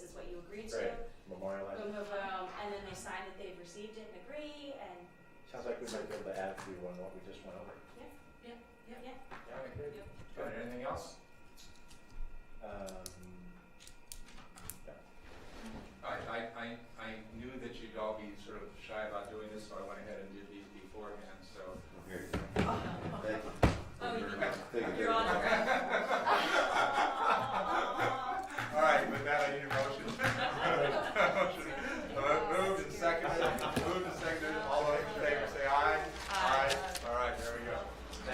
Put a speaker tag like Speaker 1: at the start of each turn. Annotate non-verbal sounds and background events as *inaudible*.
Speaker 1: they sign that they've received it and agree, and
Speaker 2: Sounds like we might be able to add to on what we just went over.
Speaker 3: Yeah, I agree.
Speaker 1: Yep.
Speaker 3: All right, anything else?
Speaker 2: Um,
Speaker 3: I, I, I, I knew that you'd all be sort of shy about doing this, so I went ahead and did these beforehand, so.
Speaker 4: Here,
Speaker 2: thank
Speaker 1: oh,
Speaker 2: you.
Speaker 1: you,
Speaker 4: take it.
Speaker 1: *laughs* you're on.
Speaker 3: All right, with that, I need a motion *laughs*